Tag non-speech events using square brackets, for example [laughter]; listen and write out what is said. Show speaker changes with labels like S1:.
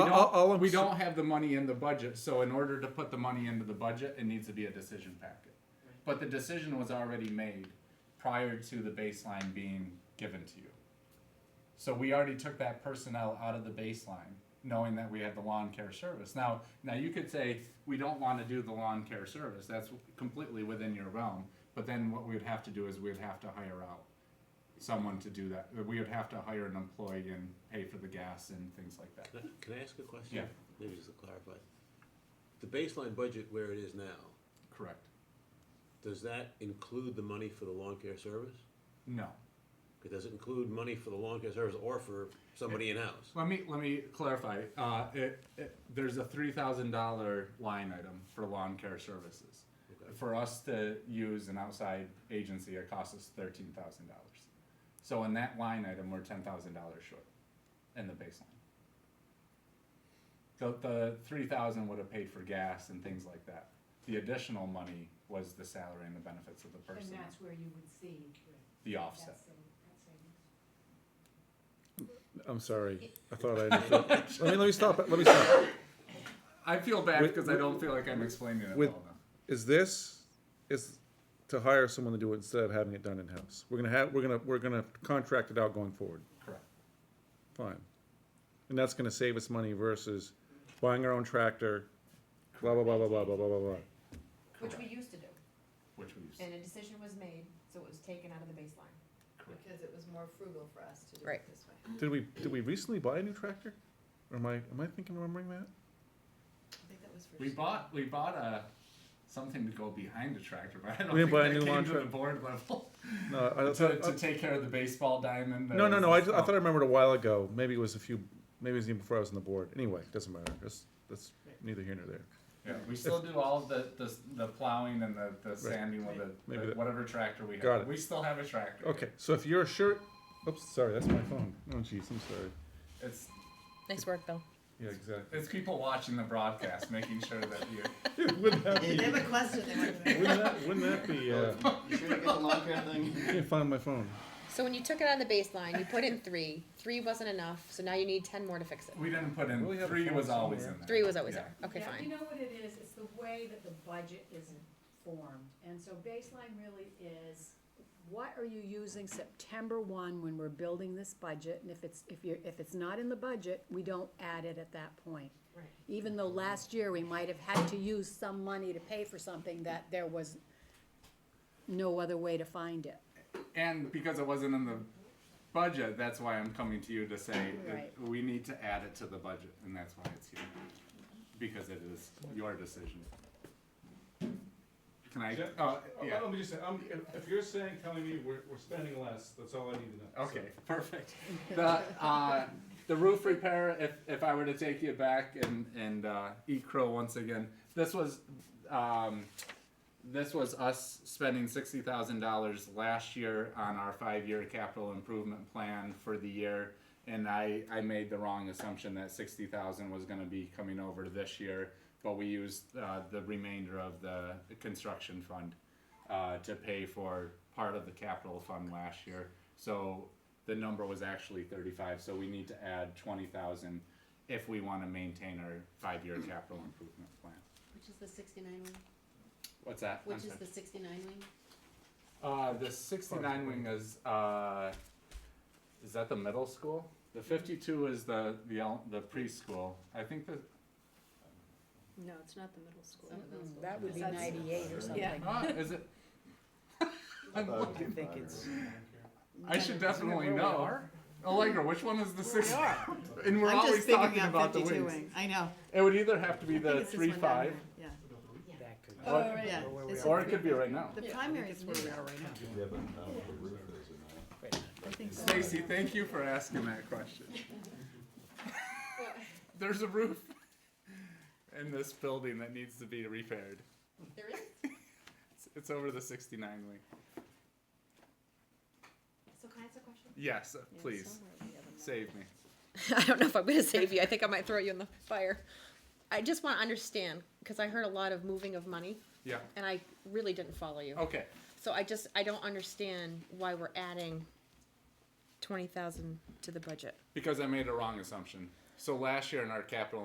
S1: all- all I'm
S2: we
S1: s-
S2: don't have the money in the budget, so in order to put the money into the budget, it needs to be a decision packet. But the decision was already made prior to the baseline being given to you. So we already took that personnel out of the baseline, knowing that we had the lawn care service. Now, now you could say, we don't wanna do the lawn care service, that's completely within your realm. But then what we'd have to do is we'd have to hire out someone to do that. We would have to hire an employee and pay for the gas and things like that.
S3: Can I- Can I ask a question?
S2: Yeah.
S3: Maybe just to clarify. The baseline budget where it is now,
S2: Correct.
S3: does that include the money for the lawn care service?
S2: No.
S3: It does it include money for the lawn care service or for somebody in-house?
S2: Let me let me clarify. Uh, it, it, there's a three thousand dollar line item for lawn care services.
S3: Okay.
S2: For us to use an outside agency, it costs us thirteen thousand dollars. So in that line item, we're ten thousand dollars short in the baseline. The the three thousand would have paid for gas and things like that. The additional money was the salary and the benefits of the
S4: And
S2: person,
S4: that's where you would see
S2: the
S4: that
S2: offset.
S4: saving, that savings.
S1: I'm sorry. I thought I. Understood. let me let me stop. it. Let me stop.
S2: I feel bad
S1: With-
S2: because I don't feel like I'm explaining it
S1: with-
S2: well enough.
S1: Is this is to hire someone to do it instead of having it done in house? We're gonna have we're gonna we're gonna contract it out going forward.
S2: Correct.
S1: Fine, and that's gonna save us money versus buying our own tractor. Blah blah blah blah blah blah blah blah. blah.
S5: Which we used to do,
S2: Which we use.
S5: and a decision was made, so it was taken out of the baseline.
S2: Correct.
S6: Because it was more frugal for us to do it
S5: Right.
S6: this way.
S1: Did we did we recently buy a new tractor? Or am I am I thinking remembering that?
S6: I think that was for.
S2: We
S6: sure.
S2: bought we bought a something to go behind the tractor, but I don't
S1: We didn't
S2: think
S1: buy a
S2: that
S1: new lawn
S2: came to the
S1: tractor.
S2: board level [laughs]
S1: No, I,
S2: to,
S1: thought-
S2: to take care of the baseball diamond. that
S1: no no
S2: was
S1: no. I, I
S2: installed.
S1: thought I remembered a while ago. Maybe it was a few. Maybe it was even before I was on the board. Anyway, doesn't matter. That's that's neither here nor there.
S2: yeah, we still do all of the, the the plowing and the, the sanding with the,
S1: Maybe
S2: the
S1: that-
S2: whatever tractor we have.
S1: Got it.
S2: We still have a tractor.
S1: Okay, so if you're sure, oops, sorry, that's my phone. Oh, jeez, I'm sorry.
S2: It's
S7: Nice work, Bill.
S1: Yeah, exactly. [laughs]
S2: it's people watching the broadcast, making sure that you.
S1: wouldn't, that
S6: They
S1: be,
S6: have a question they wanted
S1: [laughs]
S6: to
S1: wouldn't, that, wouldn't that be? Uh,
S8: You sure you get the lawn care thing?
S1: I can't find my phone.
S7: So when you took it out of the baseline, you put in three. Three wasn't enough, so now you need ten more to fix it.
S2: We didn't put in
S1: Really have a
S2: three
S1: phone
S2: was always
S1: somewhere.
S2: in there.
S7: Three was always
S2: Yeah.
S7: there. Okay,
S4: Yeah, You
S7: fine.
S4: know what it is, it's the way that the budget is formed, and so baseline really is, what are you using September one when we're building this budget? And if it's, if you're, if it's not in the budget, we don't add it at that point.
S5: Right.
S4: Even though last year we might have had to use some money to pay for something that there was no other way to find it.
S2: And because it wasn't in the budget, that's why I'm coming to you to say that
S4: Right.
S2: we need to add it to the budget, and that's why it's here. Because it is your decision. Can I,
S9: Yeah.
S2: oh,
S9: Uh,
S2: yeah,
S9: Let me just say, I'm, if, if you're saying, telling me we're, we're spending less, that's all I need to know.
S2: okay, [laughs] perfect. The, uh, the roof repair, if, if I were to take you back and, and, uh, eat crow once again, this was, um, this was us spending sixty thousand dollars last year on our five-year capital improvement plan for the year. And I, I made the wrong assumption that sixty thousand was gonna be coming over this year, but we used, uh, the remainder of the construction fund, uh, to pay for part of the capital fund last year. So the number was actually thirty-five, so we need to add twenty thousand if we wanna maintain our five-year capital improvement plan.
S5: Which is the sixty-nine wing,
S2: What's that? I'm sorry.
S5: sixty-nine wing?
S2: Uh, the sixty-nine wing is, uh, is that the middle school? The fifty-two is the, the, el- the preschool. I think the,
S5: No, it's not the middle school.
S4: That would be
S5: That's-
S4: ninety-eight
S5: [laughs]
S4: or something.
S2: ah, is
S6: [laughs]
S2: it? I'm looking.
S8: think it's.
S2: I should definitely know. Allegra, which one is the six? [laughs] And we're
S6: I'm
S2: always
S6: just thinking
S2: talking
S6: out
S2: about the
S6: fifty-two
S2: wings.
S6: wing, I know.
S2: It would either have to be
S6: I think
S2: the
S6: it's this one down
S2: three-five,
S6: here. Oh, Yeah,
S5: Oh,
S2: or,
S6: yeah. It's-
S2: or it could be right now.
S6: The primary is new.
S8: Yeah, but I don't know if the uh, roof is or not.
S6: I think so.
S2: Stacy, thank you for asking that
S5: [laughs]
S2: question. There's a roof in this building that needs to be repaired.
S5: There is,
S2: It's, it's over the 69 wing.
S5: so can I ask a question?
S2: Yes, uh, please save me.
S7: I don't know if I'm going to save you. I think I might throw you in the fire. I just want to understand because I heard a lot of moving of money,
S2: Yeah.
S7: and I really didn't follow
S4: Oh.
S7: you.
S2: Okay.
S7: So I just I don't understand why we're adding twenty thousand to the budget.
S2: Because I made a wrong assumption. So last year in our capital